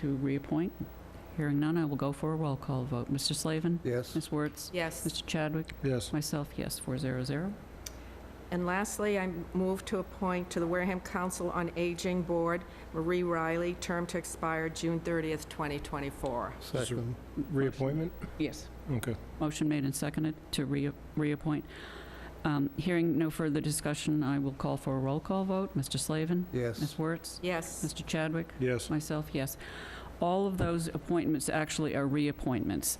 to reappoint? Hearing none, I will go for a roll call vote. Mr. Slavin? Yes. Ms. Wertz? Yes. Mr. Chadwick? Yes. Myself, yes, 400. And lastly, I move to appoint to the Wareham Council on Aging Board Marie Riley, term to expire June 30th, 2024. Second. Reappointment? Yes. Okay. Motion made and seconded to rea- reappoint. Um, Hearing no further discussion, I will call for a roll call vote. Mr. Slavin? Yes. Ms. Wertz? Yes. Mr. Chadwick? Yes. Myself, yes. All of those appointments actually are reappointments.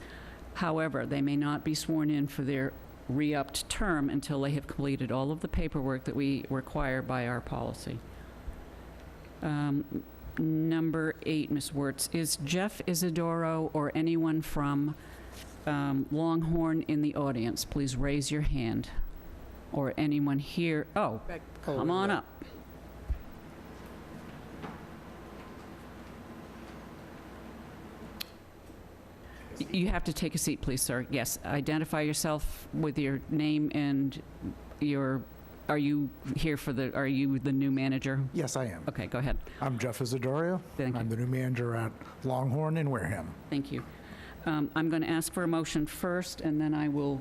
However, they may not be sworn in for their re-upped term until they have completed all of the paperwork that we require by our policy. Um, Number eight, Ms. Wertz, is Jeff Isidoro or anyone from um, Longhorn in the audience? Please raise your hand. Or anyone here, oh, come on up. Y- You have to take a seat, please, sir. Yes, identify yourself with your name and your, are you here for the, are you the new manager? Yes, I am. Okay, go ahead. I'm Jeff Isidorio. Thank I'm you. the new manager at Longhorn in Wareham. Thank you. Um, I'm going to ask for a motion first, and then I will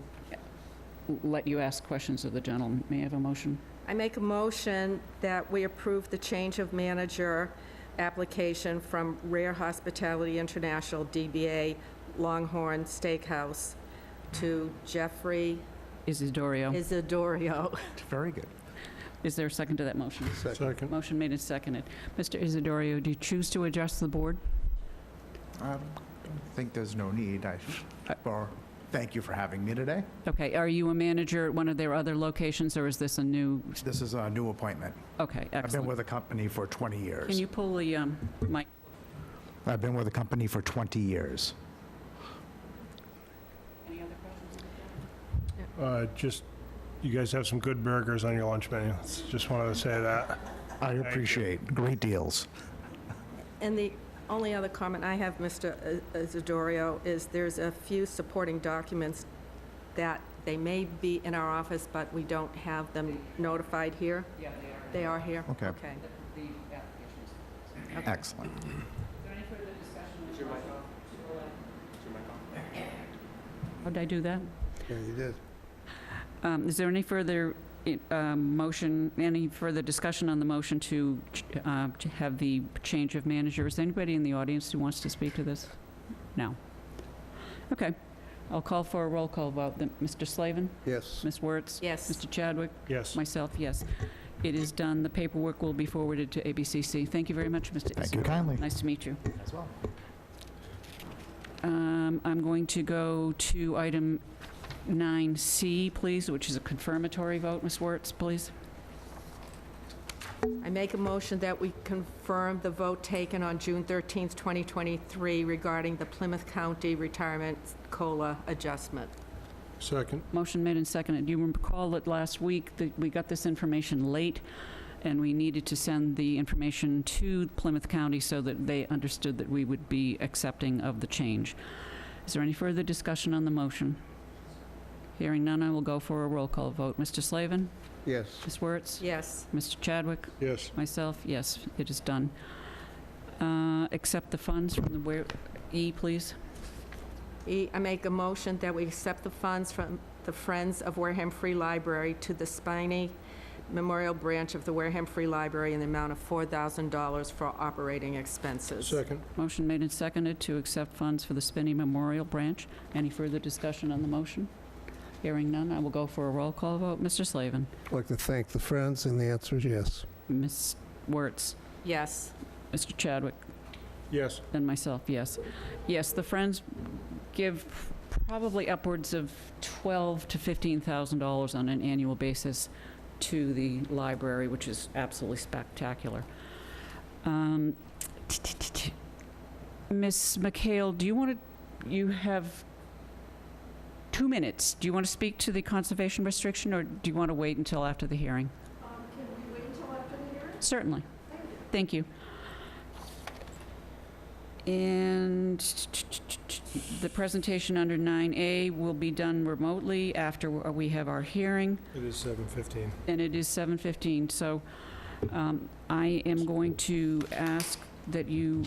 let you ask questions of the gentleman. May I have a motion? I make a motion that we approve the change of manager application from Rare Hospitality International, DBA Longhorn Steakhouse, to Jeffrey Isidorio. Isidorio. Very good. Is there a second to that motion? Second. Motion made and seconded. Mr. Isidorio, do you choose to address the board? I think there's no need. I, Uh, or, thank you for having me today. Okay, are you a manager at one of their other locations, or is this a new? This is a new appointment. Okay, I've been excellent. with the company for 20 years. Can you pull the um, mic? I've been with the company for 20 years. Any other questions? Uh, Just, you guys have some good burgers on your lunch menu. Just wanted to say that. I you. appreciate great deals. And the only other comment I have, Mr. Isidorio, is there's a few supporting documents that they may be in our office, but we don't have them notified here. Yeah, they They are here? Okay. Okay. The applications. Excellent. How'd I do that? Yeah, you did. Um, Is there any further i- um, motion, any further discussion on the motion to ch- uh, to have the change of manager? Is there anybody in the audience who wants to speak to this? No. Okay. I'll call for a roll call vote. Then Mr. Slavin? Yes. Ms. Wertz? Yes. Mr. Chadwick? Yes. Myself, yes. It is done. The paperwork will be forwarded to ABCC. Thank you very much, Mr. Thank you Isidore. kindly. Nice to meet you. As well. Um, I'm going to go to item 9C, please, which is a confirmatory vote. Ms. Wertz, please. I make a motion that we confirm the vote taken on June 13th, 2023 regarding the Plymouth County Retirement COLA adjustment. Second. Motion made and seconded. You recall that last week that we got this information late, and we needed to send the information to Plymouth County so that they understood that we would be accepting of the change. Is there any further discussion on the motion? Hearing none, I will go for a roll call vote. Mr. Slavin? Yes. Ms. Wertz? Yes. Mr. Chadwick? Yes. Myself, yes, it is done. Uh, Accept the funds from the where, E, please. E, I make a motion that we accept the funds from the Friends of Wareham Free Library to the Spiny Memorial Branch of the Wareham Free Library in the amount of $4,000 for operating expenses. Second. Motion made and seconded to accept funds for the Spinney Memorial Branch. Any further discussion on the motion? Hearing none, I will go for a roll call vote. Mr. Slavin. I'd like to thank the friends, and the answer is yes. Ms. Wertz. Yes. Mr. Chadwick. Yes. And myself, yes. Yes, the Friends give probably upwards of twelve to $15,000 on an annual basis to the library, which is absolutely spectacular. Um, Ms. McHale, do you want to, you have two minutes. Do you want to speak to the conservation restriction, or do you want to wait until after the hearing? Um, Can we wait until after the hearing? Certainly. Thank you. And the presentation under 9A will be done remotely after we have our hearing, It is 7:15. and it is 7:15. So um, I am going to ask that you